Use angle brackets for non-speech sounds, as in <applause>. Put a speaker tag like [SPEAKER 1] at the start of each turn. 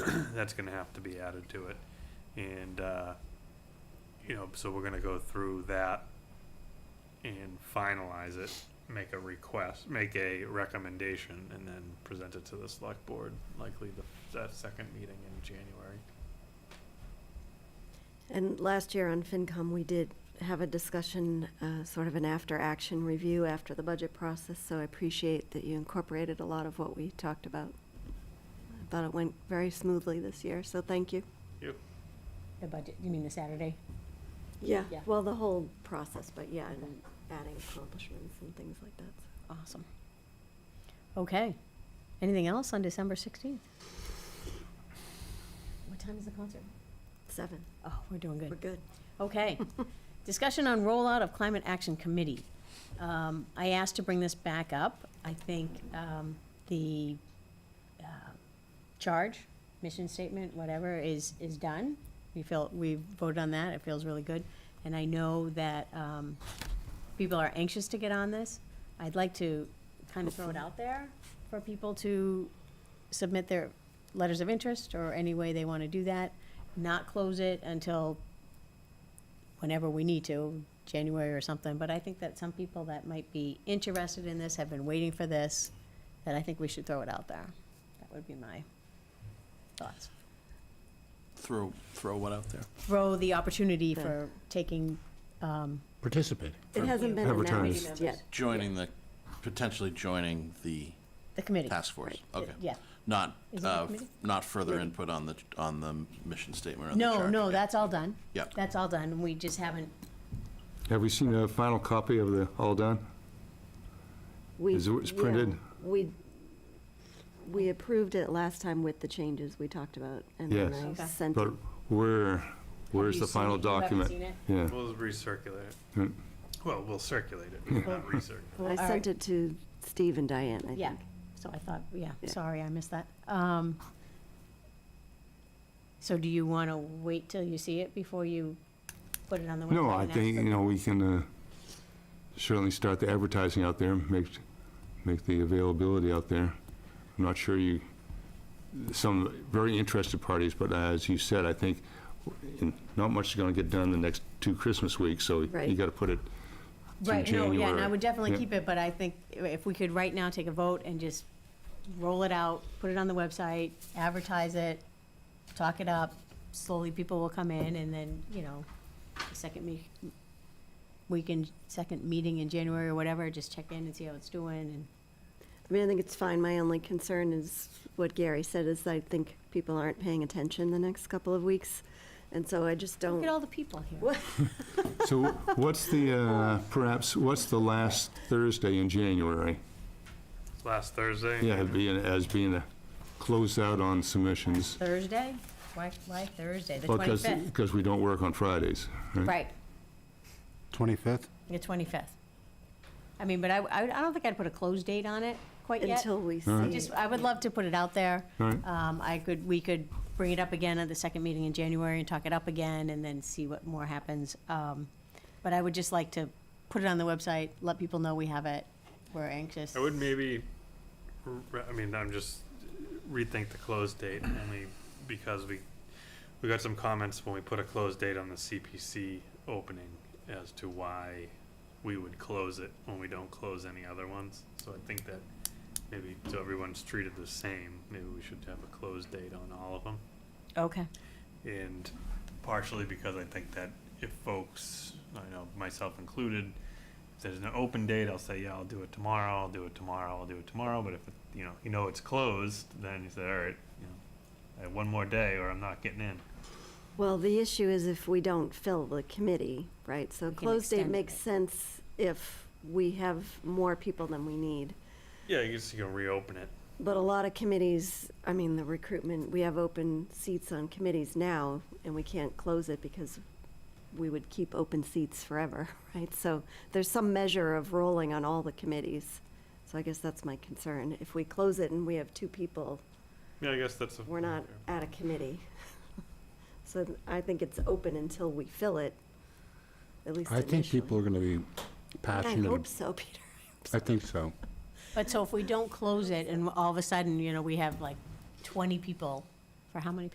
[SPEAKER 1] <clears throat> that's gonna have to be added to it. And, uh, you know, so we're gonna go through that and finalize it, make a request, make a recommendation, and then present it to the select board, likely the, that second meeting in January.
[SPEAKER 2] And last year on FinCom, we did have a discussion, uh, sort of an after-action review after the budget process, so I appreciate that you incorporated a lot of what we talked about. I thought it went very smoothly this year, so thank you.
[SPEAKER 1] Yep.
[SPEAKER 3] The budget, you mean the Saturday?
[SPEAKER 2] Yeah,
[SPEAKER 3] Yeah.
[SPEAKER 2] well, the whole process, but yeah, and adding accomplishments and things like that. so.
[SPEAKER 3] Awesome. Okay. Anything else on December 16th? What time is the concert?
[SPEAKER 2] Seven,
[SPEAKER 3] Oh, we're doing
[SPEAKER 2] we're
[SPEAKER 3] good.
[SPEAKER 2] good.
[SPEAKER 3] Okay. Discussion on rollout of Climate Action Committee. Um, I asked to bring this back up. I think um, the uh, charge, mission statement, whatever, is, is done. We feel, we voted on that. It feels really good. And I know that um, people are anxious to get on this. I'd like to kind of throw it out there for people to submit their letters of interest or any way they want to do that, not close it until whenever we need to, January or something, but I think that some people that might be interested in this have been waiting for this, that I think we should throw it out there. That would be my thoughts.
[SPEAKER 4] Throw, throw what out there?
[SPEAKER 3] Throw the opportunity for taking, um,
[SPEAKER 5] participate.
[SPEAKER 2] It hasn't been
[SPEAKER 5] Advertised.
[SPEAKER 2] announced yet.
[SPEAKER 4] Joining the, potentially joining the
[SPEAKER 3] the committee.
[SPEAKER 4] task force? Okay.
[SPEAKER 3] Yeah.
[SPEAKER 4] Not,
[SPEAKER 3] Is it a
[SPEAKER 4] uh,
[SPEAKER 3] committee?
[SPEAKER 4] not further input on the, on the mission statement or the
[SPEAKER 3] No,
[SPEAKER 4] charge?
[SPEAKER 3] no,
[SPEAKER 4] Okay.
[SPEAKER 3] that's all done.
[SPEAKER 4] Yeah.
[SPEAKER 3] That's all done. We just haven't,
[SPEAKER 6] Have we seen a final copy of the, all done?
[SPEAKER 2] We-
[SPEAKER 6] Is it- it's
[SPEAKER 2] yeah,
[SPEAKER 6] printed?
[SPEAKER 2] We, we approved it last time with the changes we talked about, and then
[SPEAKER 6] Yes.
[SPEAKER 2] I
[SPEAKER 3] Okay.
[SPEAKER 2] sent it
[SPEAKER 6] But where, where's
[SPEAKER 3] you
[SPEAKER 6] the final
[SPEAKER 3] seen it? You haven't
[SPEAKER 6] document?
[SPEAKER 3] seen it?
[SPEAKER 6] Yeah.
[SPEAKER 1] We'll recirculate it.
[SPEAKER 6] Hmm.
[SPEAKER 1] Well, we'll circulate it, not recirculate.
[SPEAKER 2] I
[SPEAKER 3] All right.
[SPEAKER 2] sent it to Steve and Diane, I
[SPEAKER 3] yeah,
[SPEAKER 2] think.
[SPEAKER 3] so I thought, yeah,
[SPEAKER 2] Yeah.
[SPEAKER 3] sorry, I missed that. Um, so do you want to wait till you see it before you put it on the website?
[SPEAKER 6] No, I
[SPEAKER 3] and ask
[SPEAKER 6] think,
[SPEAKER 3] for-
[SPEAKER 6] you know, we can uh, certainly start the advertising out there, make, make the availability out there. I'm not sure you, some very interested parties, but as you said, I think in- not much is going to get done the next two Christmas weeks, so you
[SPEAKER 2] Right.
[SPEAKER 6] got to put it through
[SPEAKER 3] Right, no, yeah, and I
[SPEAKER 6] January.
[SPEAKER 3] would definitely
[SPEAKER 6] Yeah.
[SPEAKER 3] keep it, but I think if we could right now take a vote and just roll it out, put it on the website, advertise it, talk it up, slowly people will come in, and then, you know, the second me, week in, second meeting in January or whatever, just check in and see how it's doing, and,
[SPEAKER 2] I mean, I think it's fine. My only concern is what Gary said, is I think people aren't paying attention the next couple of weeks. And so I just
[SPEAKER 3] look at
[SPEAKER 2] don't,
[SPEAKER 3] all the people here.
[SPEAKER 6] So what's the,
[SPEAKER 3] <laughs>
[SPEAKER 6] uh, perhaps, what's the last Thursday in January?
[SPEAKER 1] Last Thursday?
[SPEAKER 6] Yeah, it'd be an- as being a closeout on submissions.
[SPEAKER 3] Thursday? Why, why Thursday, the
[SPEAKER 6] Because,
[SPEAKER 3] twenty-fifth?
[SPEAKER 6] because we don't work on Fridays, right?
[SPEAKER 3] Right,
[SPEAKER 5] 25th?
[SPEAKER 3] the twenty-fifth. I mean, but I, I I don't think I'd put a close date on it quite yet.
[SPEAKER 2] until we
[SPEAKER 6] All right.
[SPEAKER 2] see.
[SPEAKER 3] Just, I would love to put it out there.
[SPEAKER 6] All right.
[SPEAKER 3] Um, I could, we could bring it up again at the second meeting in January and talk it up again and then see what more happens. Um, but I would just like to put it on the website, let people know we have it, we're anxious.
[SPEAKER 1] I would maybe, re- I mean, I'm just rethink the close date only because we, we got some comments when we put a close date on the CPC opening as to why we would close it when we don't close any other ones. So I think that maybe so everyone's treated the same, maybe we should have a close date on all of them.
[SPEAKER 3] Okay,
[SPEAKER 1] And partially because I think that if folks, I know myself included, if there's an open date, I'll say, yeah, I'll do it tomorrow, I'll do it tomorrow, I'll do it tomorrow, but if, it- you know, you know it's closed, then you say, all right, you know, I have one more day or I'm not getting in.
[SPEAKER 2] Well, the issue is if we don't fill the committee, right? So
[SPEAKER 3] We can
[SPEAKER 2] close date
[SPEAKER 3] extend
[SPEAKER 2] makes
[SPEAKER 3] it.
[SPEAKER 2] sense if we have more people than we need.
[SPEAKER 1] Yeah, I guess you can reopen it.
[SPEAKER 2] But a lot of committees, I mean, the recruitment, we have open seats on committees now, and we can't close it because we would keep open seats forever, <laughs> right? So there's some measure of rolling on all the committees. So I guess that's my concern. If we close it and we have two people,
[SPEAKER 1] Yeah, I guess that's. a-
[SPEAKER 2] we're not at a committee. <laughs> So I think it's open until we fill it, at least
[SPEAKER 5] I
[SPEAKER 2] initially.
[SPEAKER 5] think people are going to be
[SPEAKER 2] I
[SPEAKER 5] passionate.
[SPEAKER 2] hope
[SPEAKER 5] ab-
[SPEAKER 2] so, Peter.
[SPEAKER 5] I think so.
[SPEAKER 3] but so if we don't close it and all of a sudden, you know, we have like twenty people, for how many